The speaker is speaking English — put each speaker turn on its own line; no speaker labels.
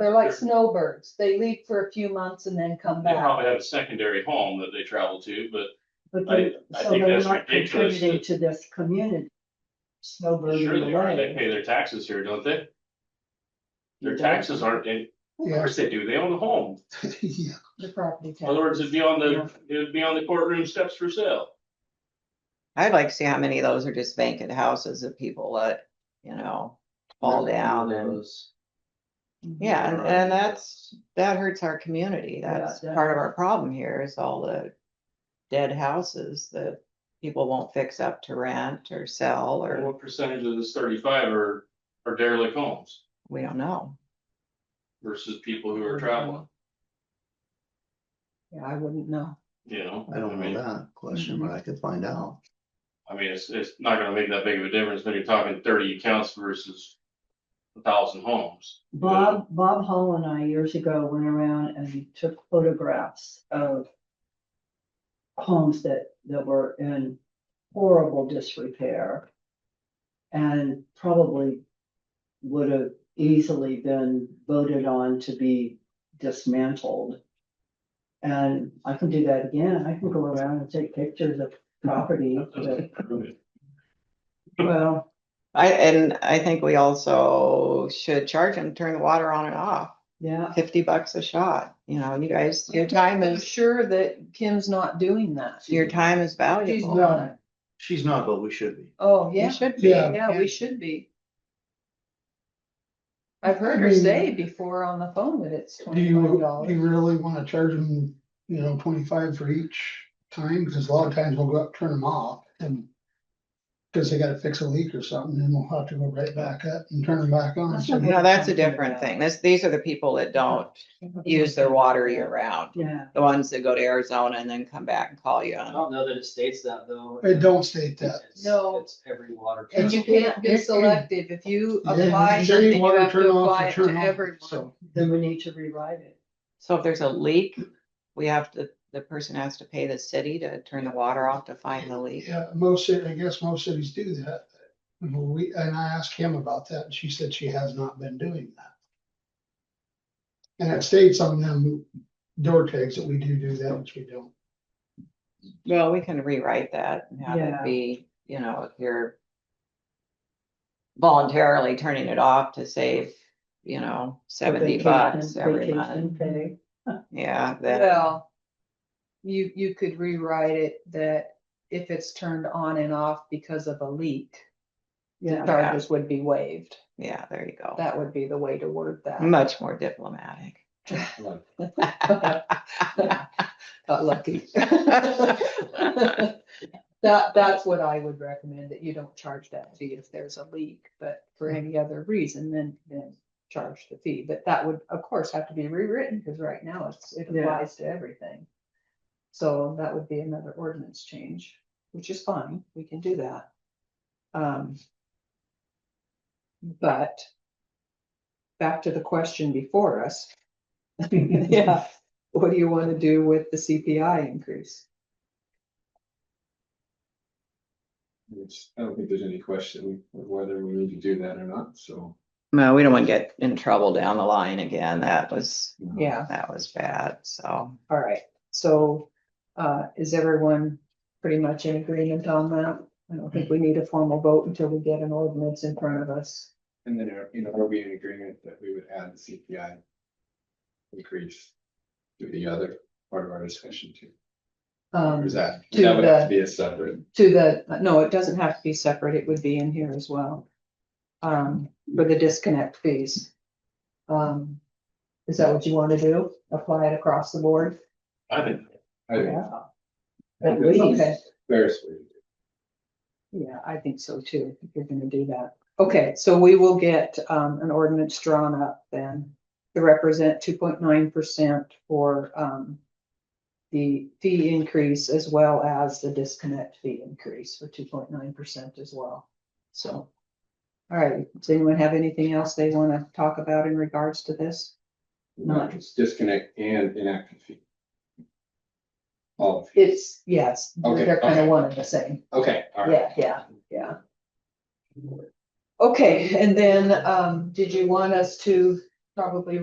They're like snowbirds. They leave for a few months and then come
They
back.
probably have a secondary home that they travel to, but
But
I-
they,
I
so
think
they're
that's
not
ridiculous
contributing
that-
to this community. Snowbird in
sure
the
they are. They
way.
pay their taxes here, don't they? Their
Yeah.
taxes aren't, in- of
Yeah,
course they do. They own a home.
Yeah,
the property
In
tax.
other words, it'd be on the, it'd be on the courtroom steps for sale.
I'd like to see how many of those are just vacant houses that people let, you know, fall down and, yeah, and, and that's, that hurts our community.
Yeah,
That's part of our problem here is all the dead houses that people won't fix up to rent or sell,
And
or
What percentage of this thirty-five are, are derelict homes
we don't know.
versus people who are traveling,
Yeah, I wouldn't know.
you know?
I don't know
mean,
that question, but I could find out.
I mean, it's, it's not gonna make that big of a difference when you're talking thirty accounts versus a thousand homes.
Bob, Bob Hall and I years ago went around and we took photographs of homes that, that were in horrible disrepair. And probably would have easily been voted on to be dismantled. And I can do that again. I can go around and take pictures of property
That
that,
doesn't prove it.
well,
I, and I think we also should charge them, turn the water on and off,
yeah.
fifty bucks a shot, you know, you guys, your time
I'm
is,
sure that Kim's not doing that.
your time is
She's
valuable.
not.
She's not, but we should be.
Oh,
You
yeah.
should be.
Yeah.
Yeah, we should be. I've heard her say before on the phone that it's
Do you,
twenty-five
do you
dollars.
really wanna charge them, you know, twenty-five for each time, cause a lot of times we'll go up, turn them off and. Cause they gotta fix a leak or something, and we'll have to go right back up and turn them back on.
That's
So,
not
No, that's a
Something
different
about-
thing. This, these are the people that don't use their water year round.
Yeah.
The ones that go to Arizona and then come back and call you
I
on.
don't know that it states that though.
It don't state that.
It's-
No.
It's every water.
And you
company.
can't be selective. If you apply
Yeah,
something,
say
you
water
have
turn
to
off
apply
or
it to
turn off,
everyone.
so.
Then we need to rewrite it.
So if there's a leak, we have to, the person has to pay the city to turn the water off to find the leak.
Yeah, most, ci- I guess most cities do that. We, and I asked Kim about that, and she said she has not been doing that. And it states on them door tags that we do do that, which we don't.
Well, we can rewrite that and have it
Yeah.
be, you know, if you're voluntarily turning it off to save, you know, seventy
Vacation-
bucks every
vacation
month.
pay.
Yeah, that,
Well, you, you could rewrite it that if it's turned on and off because of a leak, the
Yeah,
charges would be waived.
yeah, there you go.
That would be the way to word that.
Much more diplomatic.
Got lucky. That, that's what I would recommend, that you don't charge that fee if there's a leak, but for any other reason, then, then charge the fee. But that would, of course, have to be rewritten, because right now it's, it
Yeah.
applies to everything. So that would be another ordinance change, which is fine, we can do that. Um. But back to the question before us. Yeah, what do you want to do with the CPI increase?
Which I don't think there's any question of whether we need to do that or not, so.
Well, we don't want to get in trouble down the line again. That was,
you know.
Yeah,
that was bad, so.
all right, so, uh, is everyone pretty much in agreement on that? I don't think we
Mm-hmm.
need a formal vote until we get an ordinance in front of us.
And then, are- you know, are we in agreement that we would add the CPI? Increase to the other part of our discussion too,
Um,
or is that,
To
that would
the-
have to be a separate?
to the, no, it doesn't have to be separate, it would be in here as well. Um, for the disconnect fees. Um, is that what you want to do? Apply it across the board?
I think
I think
At
that's the
least.
fairest way to do it.
Yeah, I think so too, if you're gonna do that. Okay, so we will get um an ordinance drawn up then to represent two point nine percent for um. The fee increase as well as the disconnect fee increase for two point nine percent as well, so. All right, does anyone have anything else they wanna talk about in regards to this?
Not just disconnect and inactive fee. All, of it.
It's, yes,
Okay,
they're kind of
okay.
one and the same.
okay, all right.
Yeah, yeah, yeah. Okay, and then, um, did you want us to probably